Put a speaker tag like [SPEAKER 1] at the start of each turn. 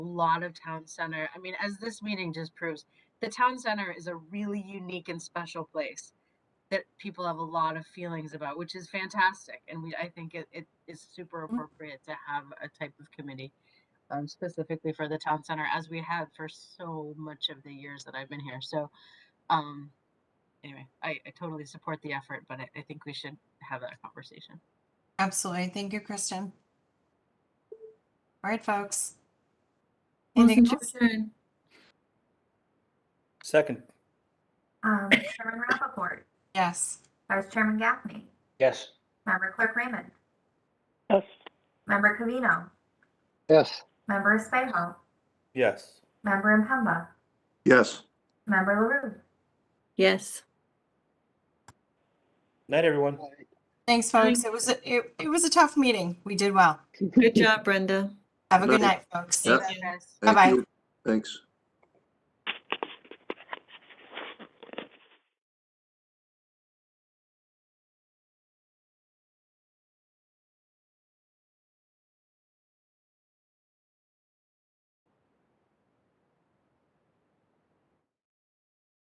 [SPEAKER 1] lot of town center. I mean, as this meeting just proves, the town center is a really unique and special place that people have a lot of feelings about, which is fantastic. And we, I think it, it is super appropriate to have a type of committee um, specifically for the town center, as we had for so much of the years that I've been here. So, um, anyway, I, I totally support the effort, but I, I think we should have that conversation.
[SPEAKER 2] Absolutely. Thank you, Kristen. All right, folks. Anything
[SPEAKER 3] Motion to
[SPEAKER 2] else?
[SPEAKER 3] adjourn.
[SPEAKER 4] Second,
[SPEAKER 5] Um, Chairman Rappaport,
[SPEAKER 2] Yes.
[SPEAKER 5] Vice Chairman Gaffney,
[SPEAKER 4] yes.
[SPEAKER 5] Member Clerk Raymond,
[SPEAKER 6] Yes.
[SPEAKER 5] Member Cavino,
[SPEAKER 6] Yes.
[SPEAKER 5] Member Espejo,
[SPEAKER 4] Yes.
[SPEAKER 5] Member Impemba,
[SPEAKER 7] Yes.
[SPEAKER 5] Member LaRue.
[SPEAKER 3] Yes.
[SPEAKER 4] Night, everyone.
[SPEAKER 2] Thanks, folks. It was, a- it, it was a tough meeting. We did well.
[SPEAKER 3] Good job, Brenda.
[SPEAKER 2] Have a good night,
[SPEAKER 7] Right.
[SPEAKER 2] folks.
[SPEAKER 7] Yeah.
[SPEAKER 1] Thank you, guys.
[SPEAKER 7] Thank
[SPEAKER 2] Bye-bye.
[SPEAKER 7] you. Thanks.